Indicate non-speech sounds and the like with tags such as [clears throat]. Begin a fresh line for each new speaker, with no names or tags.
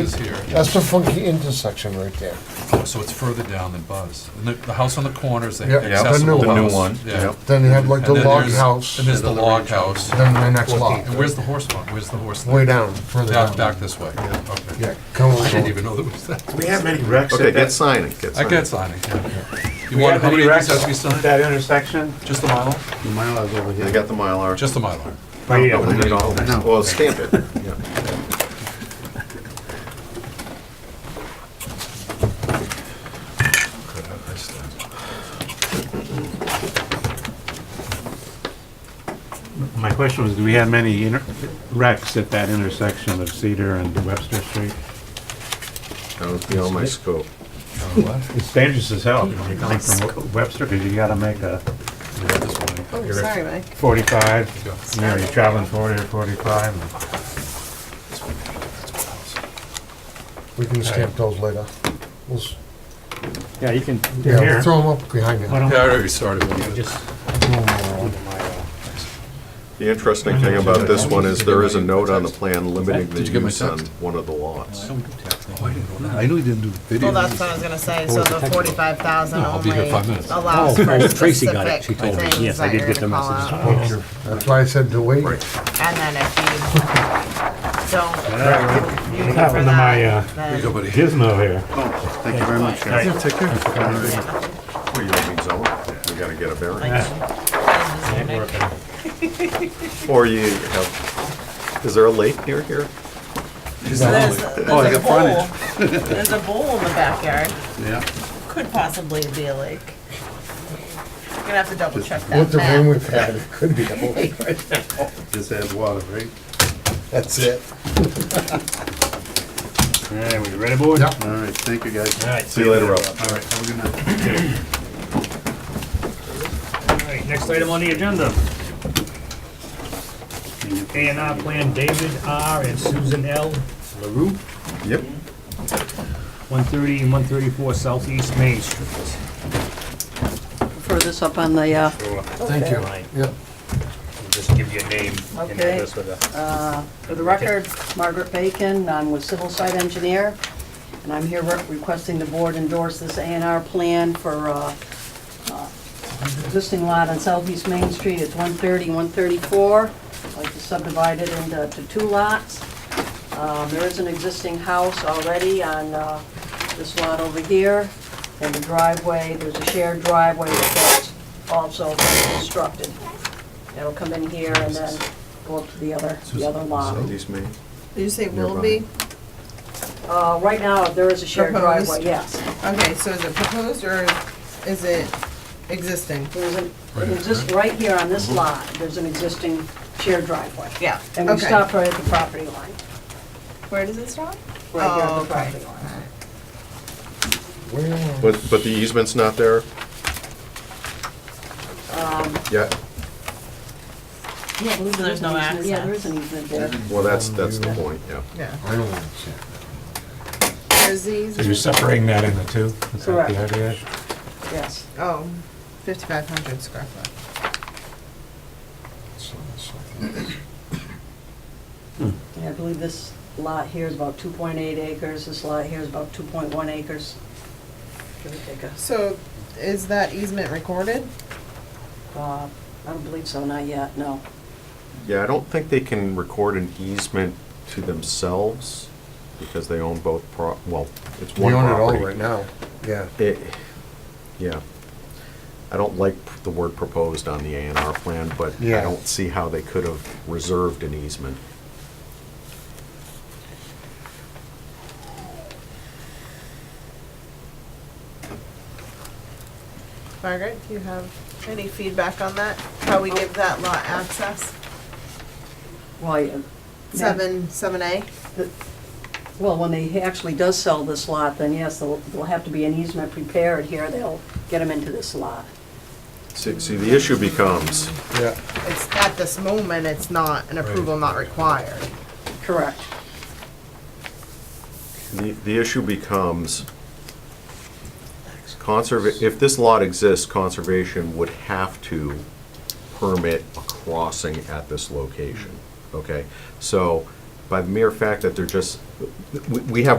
is here.
That's the funky intersection right there.
So it's further down than Buzz. And the, the house on the corner is the
Yep. Yeah, the
accessible
new
house.
one.
The new one,
Yeah.
yep.
Then you have like the
And then
log
there's-
house,
And there's the log house.
then the next lot,
And where's the horse barn? Where's the horse?
way
thing?
down, further
Back,
down.
back this way. Okay.
Yeah, come
I didn't
on.
even know there was that.
We have many wrecks
Okay,
at
get
that,
signing, get
I
signing.
can't sign it, yeah. You
we
want,
have many
how many of these
wrecks
have to be
at
signed?
that intersection.
Just the Mylar?
The Mylar's over
I
here.
got the Mylar.
Just the Mylar.
Right here.
No, we need all of
No.
them. Well, stamp it. Yeah.
Could have this [laughs] thing.
My question was, do we have many inter- wrecks at that intersection of Cedar and Webster Street?
That was beyond my scope.
It's dangerous as hell when you're coming from Webster, because you gotta make a
Yeah, this one.
Oh, sorry, Mike.
45,
Yeah.
you know, you're traveling 40 or 45.
We can stamp those later. We'll s-
Yeah, you can,
Yeah, we'll throw them up behind you.
Yeah, I already started one.
The interesting thing about this one is there is a note on the plan limiting the
Did you get my
use on
text?
one of the lots.
Oh, I didn't know that. I knew you didn't do the video.
Well, that's what I was gonna say, so the forty-five thousand
No, I'll be here
only
five minutes.
allows for specific
told me.
things
Yes, I
that
did
you're
get
gonna
the
call
message.
out.
That's why I said to wait.
And then if you don't. use it
Happened
for
to
that,
my, uh,
then-
Go, buddy.
Gizmo here.
Thank you very much. Well, you
Yeah, Take care.
don't need zoning. We gotta get a variance.
Is your name-
Or you have, is there a lake near here?
There's
Oh, I
there's a
got
bowl, there's a bowl in the backyard,
Yeah.
could possibly be a lake. You're gonna have to double check
With
that
the rain
map.
we've had, it could be a whole right now.
Just add water, right?
That's it.
All right, we ready, boys?
Yep.
All right, thank you, guys.
All right,
See you later, Rob.
All right, have a good night. [clears throat]
all right, next item on the agenda. A and R uh, plan, David R. and Susan L. LaRue,
Yep.
130 and 134 Southeast Main Street.
Throw this up on the, uh,
Thank you. Yep.
Just give your name and
Okay.
address with a...
for the record, Margaret Bacon, I'm with Civil Site Engineer, and I'm here re- requesting the board endorse this A and R plan for uh, uh, existing lot on Southeast Main Street, it's 130, 134. I'd like to subdivide it into to two lots. Um, There is an existing house already on uh, this lot over here, and the driveway, there's a shared driveway that's also constructed. It'll come in here and then go up to the other, the other lot.
Southeast Maine.
Did you say will
Nearby.
be?
Uh, right now, there is a shared
Proposed.
driveway, yes.
Okay, so is it proposed or is it existing?
There's an,
Right,
there's this, right here on this lot, there's an existing shared driveway.
Yeah.
And we
okay.
stopped right at the property line,
Where does it stop?
right here at
Oh,
the
okay.
property line.
Well,
But, but the easement's not there?
Um.
Yeah,
Yeah, so there's no access.
Yeah, there is an easement there.
well, that's, that's the point, yeah.
Yeah.
I don't see it.
There's these.
You're separating that into two? Is that
Correct.
the idea?
Yes.
Oh, 5,500 square foot.
It's on the south.
And I believe this lot here is about 2.8 acres, this lot here is about 2.1 acres. Give or take a-
So is that easement recorded?
uh, I don't believe so, not yet, no.
Yeah, I don't think they can record an easement to themselves because they own both pro, well, it's
We
one
own it all
property.
right now, yeah.
It- Yeah. I don't like the word proposed on the A and R plan, but I
Yeah.
don't see how they could have reserved an easement.
Margaret, do you have any feedback on that? How we give that lot access?
Well, yeah,
Seven, seven A?
Well, when they actually does sell this lot, then yes, there'll there'll have to be an easement prepared here, they'll get them into this lot.
See, see, the issue becomes,
Yeah.
It's, at this moment, it's not, an approval not required.
Correct.
the, the issue becomes conserva, if this lot exists, conservation would have to permit a crossing at this location, okay? So by the mere fact that they're just, we, we have